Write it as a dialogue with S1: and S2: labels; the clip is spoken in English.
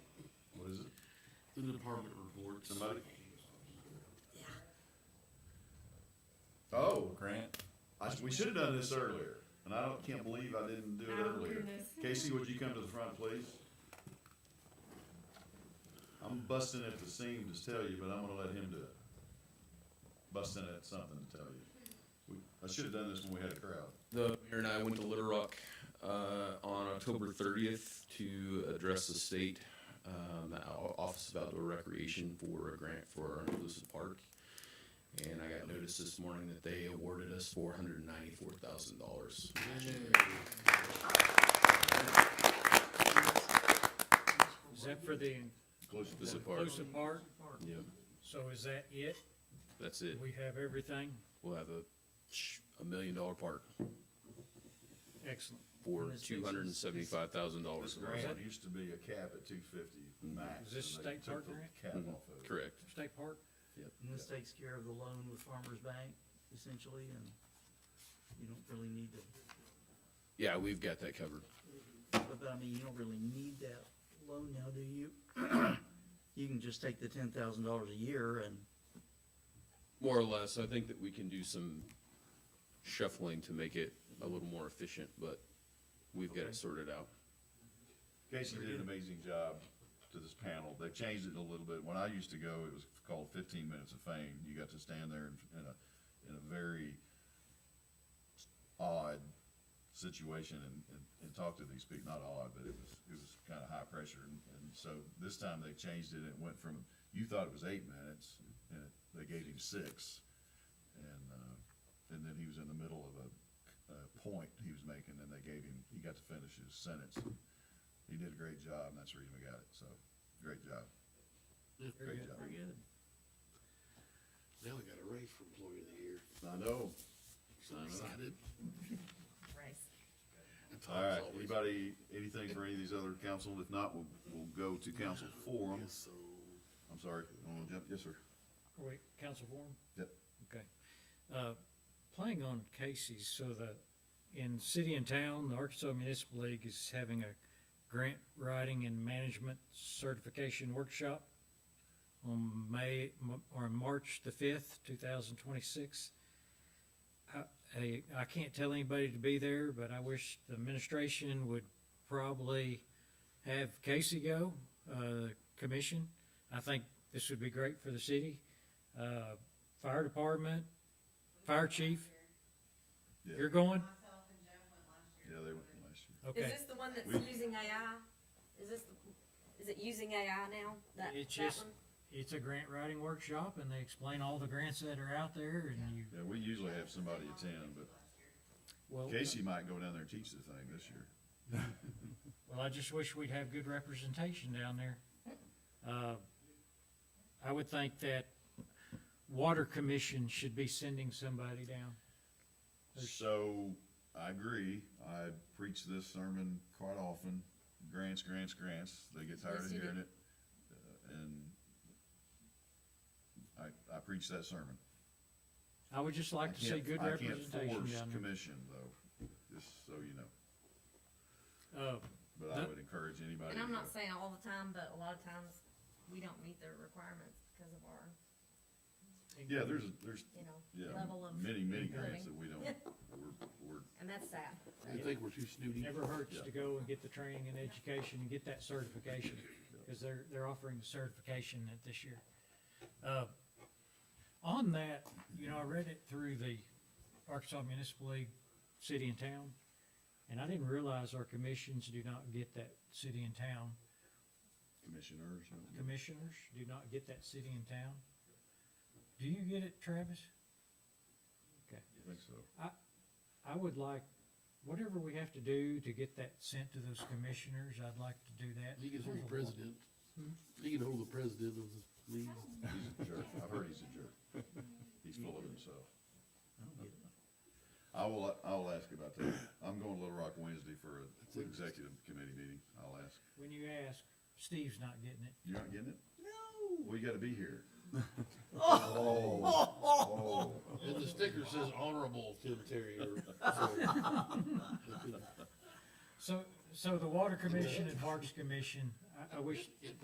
S1: the department reports.
S2: Somebody?
S3: Oh,
S2: Grant?
S3: I, we should have done this earlier, and I don't, can't believe I didn't do it
S4: Oh,
S5: Our
S3: earlier.
S5: Oh, goodness.
S3: Casey, would you come to the front, please? I'm busting at the seams to tell you, but I'm gonna let him do it. Busting at something to tell you. We, I should have done this when we had a crowd.
S2: The mayor and I went to Little Rock uh, on October 30th to address the state um, O- Office of Outdoor Recreation for a grant for our inclusive park. And I got notice this morning that they awarded us $494,000.
S4: Is that for the
S3: Close to
S2: Inclusive park.
S4: inclusive part?
S2: Yeah,
S4: So is that it?
S2: that's it.
S4: We have everything?
S2: We'll have a sh- a million dollar park
S4: Excellent.
S2: for
S4: And this makes sense.
S3: This
S2: $275,000.
S3: grant used to be a cap at two fifty max.
S4: Is this
S3: and they
S4: state
S3: took
S4: park
S3: the
S4: grant?
S3: Cap off of it.
S2: Correct.
S4: State park?
S6: And this takes care of the loan with Farmers Bank essentially, and you don't really need to,
S2: Yeah, we've got that covered.
S6: but but I mean, you don't really need that loan now, do you? You can just take the ten thousand dollars a year and,
S2: More or less, I think that we can do some shuffling to make it a little more efficient, but we've got it sorted out.
S3: Casey did an amazing job to this panel. They've changed it a little bit. When I used to go, it was called fifteen minutes of fame. You got to stand there in, in a, in a very odd situation and, and, and talk to these people. Not odd, but it was, it was kinda high pressure. And, and so this time they changed it. and It went from, you thought it was eight minutes and it- they gave him six. And, uh, and then he was in the middle of a, a point he was making and they gave him, he got to finish his sentence. He did a great job, and that's the reason we got it, so, great job.
S4: Very
S3: Great
S4: good.
S3: job.
S6: very good.
S1: Now we got a raise for employee of the year.
S3: I know.
S1: So excited.
S5: Rice.
S1: Tom's
S3: All right,
S1: always-
S3: anybody, anything for any of these other council? If not, we'll, we'll go to council forum.
S1: Yes, so,
S3: I'm sorry, you wanna jump? Yes, sir.
S4: Are we Oh, council forum?
S3: Yep.
S4: Okay. Uh, Playing on Casey's, so the, in city and town, the Arkansas Municipal League is having a grant writing and management certification workshop on May, or March the fifth, two thousand twenty-six. I, I can't tell anybody to be there, but I wish the administration would probably have Casey go, uh, commission. I think this would be great for the city. Uh, fire department, fire chief.
S3: Yeah.
S4: You're going?
S7: Myself and Joe went last year.
S3: Yeah, they went last year.
S4: Okay.
S5: Is this the one that's
S3: We-
S5: using AI? Is this, the- is it using AI now? That,
S4: It's
S5: that
S4: just-
S5: one?
S4: It's a grant writing workshop and they explain all the grants that are out there and you,
S3: Yeah, we usually have somebody attend, but
S4: well,
S3: Casey might go down there and teach the thing this year.
S4: well, I just wish we'd have good representation down there. Uh, I would think that water commission should be sending somebody down.
S3: So, I agree, I preach this sermon quite often, grants, grants, grants, they get tired of
S5: Yes, you do.
S3: hearing it, uh, and I, I preach that sermon.
S4: I would just
S3: I
S4: like to see
S3: can't,
S4: good
S3: I can't
S4: representation
S3: force
S4: down
S3: commission though, just so you know,
S4: there. Uh,
S3: but I
S4: That-
S3: would encourage anybody.
S5: And I'm
S3: to
S5: not
S3: go.
S5: saying all the time, but a lot of times we don't meet their requirements because of our,
S3: Yeah, there's, there's,
S5: you know,
S3: yeah,
S5: Level of
S3: many, many
S5: living.
S3: grants that we don't, we're, we're,
S5: and that's sad.
S1: I think we're too snooty.
S4: Never hurts
S3: Yeah.
S4: to go and get the training and education and get that certification, because they're, they're offering the certification at this year. Uh, On that, you know, I read it through the Arkansas Municipal League, City and Town, and I didn't realize our commissions do not get that city and town.
S3: commissioners. and-
S4: Commissioners do not get that city and town. Do you get it, Travis?
S3: I think so.
S4: I would like, whatever we have to do to get that sent to those commissioners, I'd like to do that.
S1: He can hold the
S4: There's a lot-
S1: president. Hmm? He can hold the president of the league.
S3: He's a jerk, I've heard he's a jerk. He's full of himself.
S6: I don't get it.
S3: I will, I will ask about that. I'm going to Little Rock Wednesday for
S1: That's
S3: an
S1: interesting.
S3: executive committee meeting. I'll ask.
S4: When you ask, Steve's not getting it.
S3: You're not getting it? No. Well, you gotta be here. Oh, oh.
S1: And the sticker says honorable Tim Terry. or-
S4: So, so the Water Commission and Parks Commission, I, I wish